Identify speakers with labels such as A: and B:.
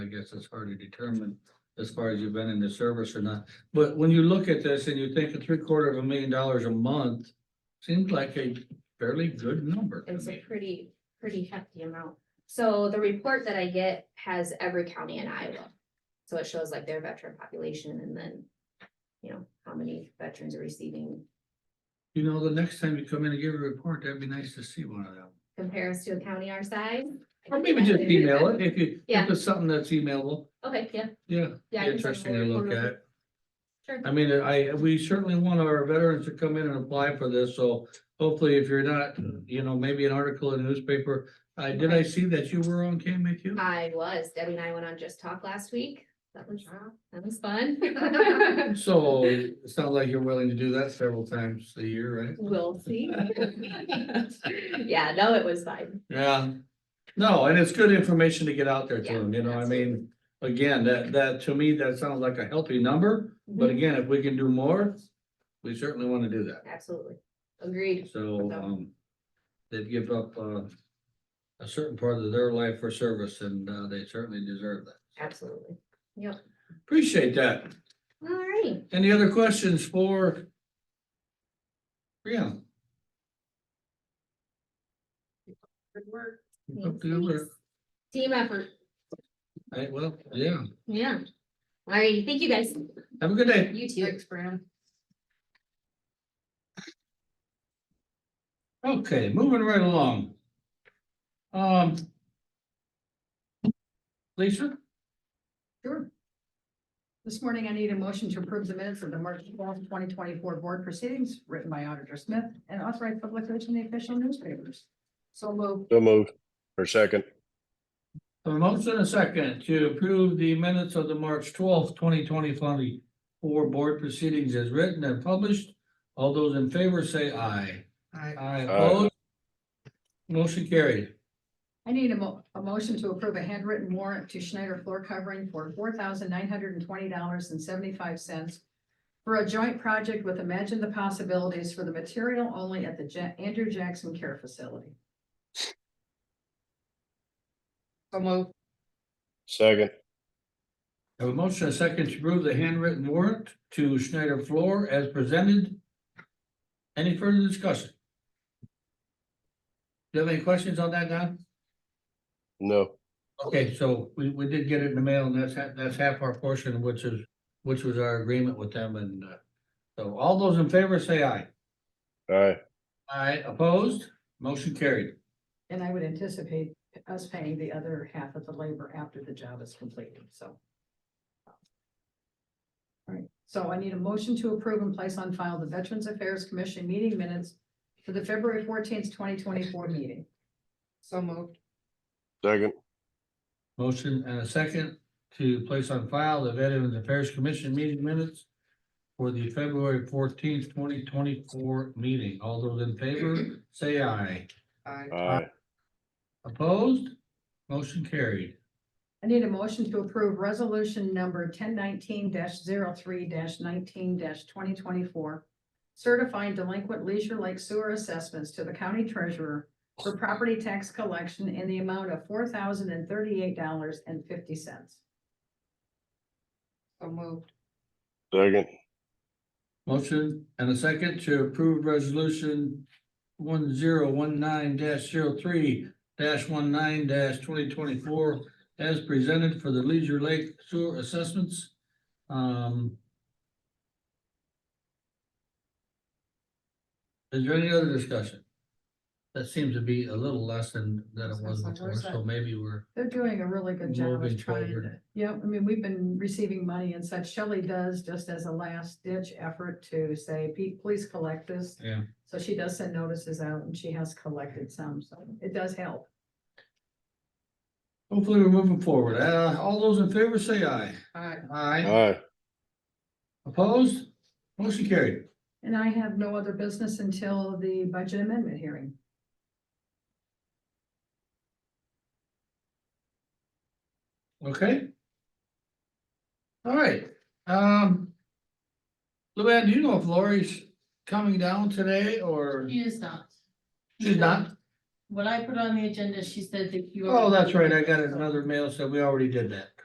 A: guess it's hard to determine as far as you've been in the service or not. But when you look at this and you think of three quarter of a million dollars a month, seems like a fairly good number. to
B: It's a
A: me.
B: pretty, pretty hefty amount. So the report that I get has every county in Iowa. So it shows like their veteran population and then, you know, how many veterans are receiving
A: You know, the next time you come in and give a report, that'd be nice to see one of them.
B: compares to a county our size.
A: Or maybe just email it if you,
B: Yeah.
A: if it's something that's emailable,
B: Okay, yeah,
A: yeah.
B: yeah. I can send
A: Interesting to
B: a
A: look
B: report over.
A: at.
B: Sure.
A: I mean, I, we certainly want our veterans to come in and apply for this, so hopefully if you're not, you know, maybe an article in the newspaper. I, did I see that you were on KMAQ?
B: I was, Debbie and I went on Just Talk last week. That was, that was fun.
A: So it sounds like you're willing to do that several times a year, right?
B: We'll see. Yeah, no, it was fine.
A: Yeah. No, and it's good information to get out there to
B: Yeah,
A: them, you know, I mean, again, that, that, to me, that sounds like a healthy number. But
B: Mhm.
A: again, if we can do more, we certainly want to do that.
B: Absolutely. Agreed.
A: So,
B: So-
A: um, they'd give up, uh, a certain part of their life for service and, uh, they certainly deserve that.
B: Absolutely.
A: Appreciate that.
B: All right.
A: Any other questions for? Brianna?
C: Good work.
A: Up to you, Rick.
B: Team effort.
A: Hey, well, yeah.
B: Yeah. All right. Thank you guys.
A: Have a good day.
B: You too.
C: Thanks, Brandon.
A: Okay, moving right along. Um. Lisa?
C: Sure. This morning, I need a motion to approve the minutes of the March twelfth, twenty twenty-four board proceedings written by Auditor Smith and authorized publication in the official newspapers. So moved.
D: So moved. For second.
A: A motion and a second to approve the minutes of the March twelfth, twenty twenty twenty four board proceedings as written and published. All those in favor say aye. Aye. Aye opposed. Motion carried.
C: I need a mo- a motion to approve a handwritten warrant to Schneider floor covering for four thousand nine hundred and twenty dollars and seventy-five cents for a joint project with Imagine the Possibilities for the material only at the Ja- Andrew Jackson Care Facility. So moved.
D: Second.
A: Have a motion and a second to approve the handwritten warrant to Schneider Floor as presented. Any further discussion? Do you have any questions on that, Don?
D: No.
A: Okay, so we, we did get it in the mail and that's, ha- that's half our portion, which is, which was our agreement with them and, uh, so all those in favor say aye.
D: Aye.
A: Aye, opposed, motion carried.
C: And I would anticipate us paying the other half of the labor after the job is completed, so. All right, so I need a motion to approve and place on file the Veterans Affairs Commission meeting minutes for the February fourteenth, twenty twenty-four meeting. So moved.
D: Second.
A: Motion and a second to place on file the Veterans Affairs Commission meeting minutes for the February fourteenth, twenty twenty-four meeting. All those in favor, say aye.
D: Aye.
A: Opposed, motion carried.
C: I need a motion to approve resolution number ten nineteen 3 nineteen twenty twenty-four. Certifying delinquent Leisure Lake sewer assessments to the county treasurer for property tax collection in the amount of four thousand and thirty-eight dollars and fifty cents. So moved.
D: Second.
A: Motion and a second to approve resolution one zero one nine 3 one nine twenty twenty-four as presented for the Leisure Lake Sewer Assessments. Um. Is there any other discussion? That seems to be a little less than, than it was before, so maybe we're,
C: They're doing a really good job
A: Moving
C: of trying
A: forward.
C: to, yeah, I mean, we've been receiving money and such. Shelley does just as a last ditch effort to say, "Pete, please collect this.
A: yeah.
C: So she does send notices out and she has collected some, so it does help.
A: Hopefully we're moving forward. Uh, all those in favor say aye. Aye.
D: Aye.
A: Opposed? Motion carried.
C: And I have no other business until the budget amendment hearing.
A: Okay. All right, um. Luann, do you know if Lori's coming down today or
E: She is not.
A: she's not?
E: What I put on the agenda, she said that you.
A: Oh, that's right. I got another mail, so we already did that.